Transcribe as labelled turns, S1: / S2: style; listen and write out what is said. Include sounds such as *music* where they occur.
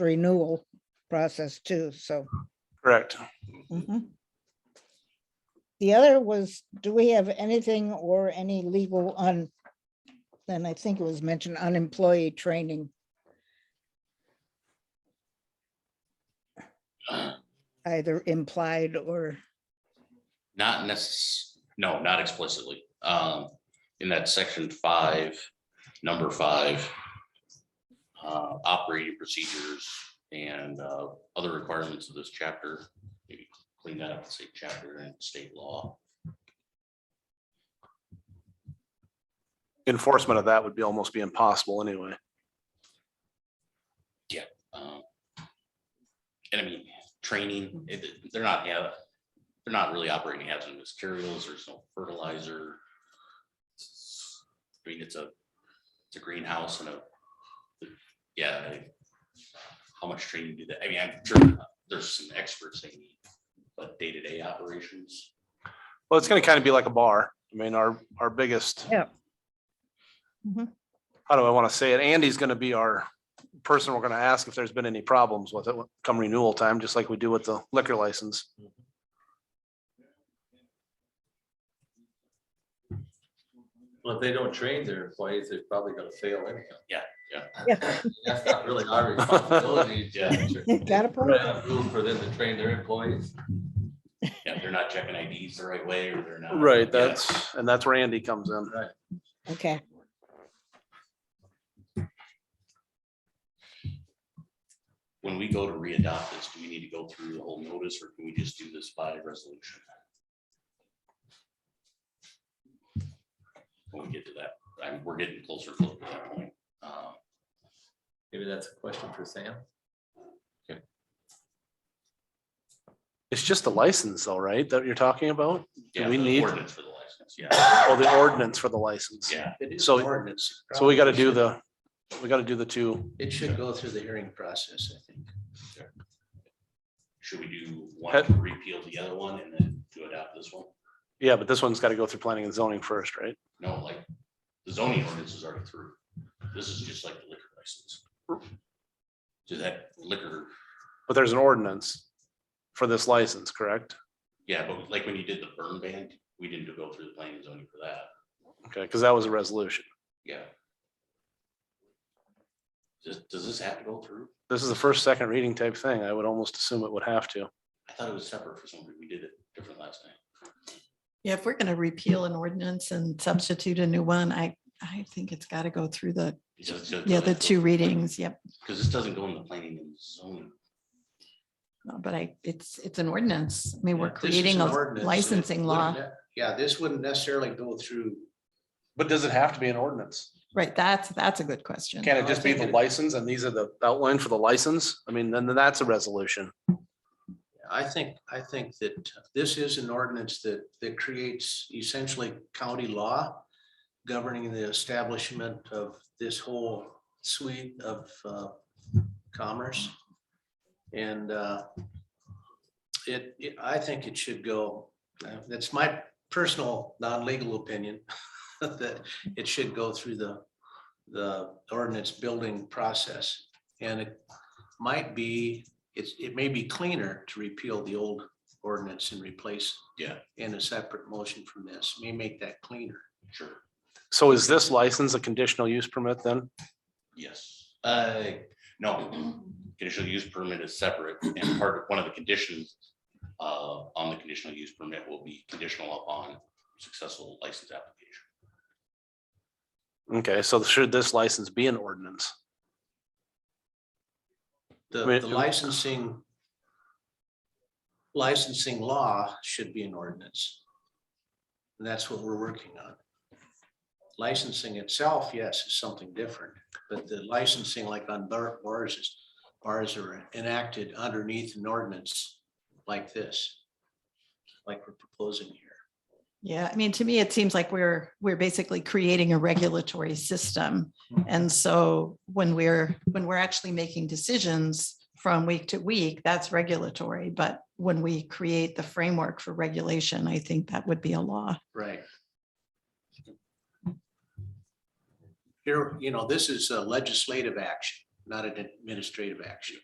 S1: renewal process too, so.
S2: Correct.
S1: mhm. The other was, do we have anything or any legal on, and I think it was mentioned on employee training? Either implied or,
S3: Not necess, no, not explicitly. Um, in that section five, number five. Uh, operating procedures and, uh, other requirements of this chapter, maybe clean that up, say chapter and state law.
S2: Enforcement of that would be almost be impossible anyway.
S3: Um, And I mean, training, it- they're not, yeah, they're not really operating hazardous materials, there's no fertilizer. I mean, it's a, it's a greenhouse and a, yeah. I- How much training do that, I mean, I'm sure there's some experts they need, but day-to-day operations,
S2: Well, it's gonna kind of be like a bar. I mean, our, our biggest.
S1: Yeah. Mhm.
S2: How do I want to say it? Andy's gonna be our person we're gonna ask if there's been any problems with it come renewal time, just like we do with the liquor license.
S4: Well, if they don't train their employees, they're probably gonna fail anyhow.
S3: Yeah, yeah.
S1: Yeah.
S4: *laughs* That's not really our responsibility.
S3: Yeah.
S1: Got a point.
S4: Rules for them to train their employees.
S3: yeah, they're not checking IDs the right way, or they're not.
S2: Right,
S3: yeah.
S2: that's, and that's where Andy comes in.
S1: okay.
S3: When we go to re-adopt this, do we need to go through the whole notice, or can we just do this by resolution? When we get to that, I mean, we're getting closer to that point. Uh,
S4: Maybe that's a question for Sam.
S2: It's just the license though, right, that you're talking about?
S3: yeah,
S2: we
S3: the
S2: need-
S3: Ordinance for the license, yeah,
S2: Or the ordinance for the license?
S3: yeah.
S2: So-
S5: Ordinance.
S2: So we gotta do the, we gotta do the two.
S5: It should go through the hearing process, I think.
S3: Should we do one, to repeal the other one, and then to adopt this one?
S2: Yeah, but this one's gotta go through planning and zoning first, right?
S3: No, like, the zoning ordinance is already through. This is just like the liquor license. So that liquor
S2: But there's an ordinance for this license, correct?
S3: Yeah, but like when you did the burn ban, we didn't go through the planning and zoning for that.
S2: Okay, because that was a resolution.
S3: Yeah. Does, does this have to go through?
S2: This is the first, second reading type thing. I would almost assume it would have to.
S3: I thought it was separate for some reason. We did it different last night.
S6: Yeah, if we're gonna repeal an ordinance and substitute a new one, I, I think it's gotta go through the,
S3: It does- does-
S6: yeah, the two readings, yep.
S3: Because this doesn't go in the planning and zoning.
S6: No, Uh, But I, it's, it's an ordinance. I mean, we're
S5: Yeah, this is
S6: creating
S5: an
S6: a
S5: ordinance, so it
S6: licensing law.
S5: wouldn't ne- Yeah, this wouldn't necessarily go through.
S2: But does it have to be an ordinance?
S6: Right, that's, that's a good question.
S2: Can it just be the license and these are the outline for the license? I mean, then then that's a resolution.
S5: I think, I think that this is an ordinance that, that creates essentially county law governing the establishment of this whole suite of uh, commerce. And uh, it, it- I think it should go, uh, that's my personal, non-legal opinion, *laughs* that it should go through the, the ordinance building process. And it might be it's, it may be cleaner to repeal the old ordinance and replace.
S3: Yeah.
S5: In a separate motion from this, may make that cleaner.
S3: Sure.
S2: So is this license a conditional use permit then?
S3: Yes. Uh, no, conditional use permit is separate and part of, one of the conditions uh, on the conditional use permit will be conditional upon successful license application.
S2: Okay, so should this license be an ordinance?
S5: The
S2: Wait,
S5: the
S2: you-
S5: licensing. Licensing law should be an ordinance. And that's what we're working on. Licensing itself, yes, is something different, but the licensing like on bar- bars is, bars are enacted underneath an ordinance like this. Like we're proposing here.
S6: Yeah, I mean, to me, it seems like we're, we're basically creating a regulatory system.
S5: Hmm.
S6: And so when we're, when we're actually making decisions from week to week, that's regulatory. But when we create the framework for regulation, I think that would be a law.
S5: Right. Here, you know, this is a legislative action, not an administrative action.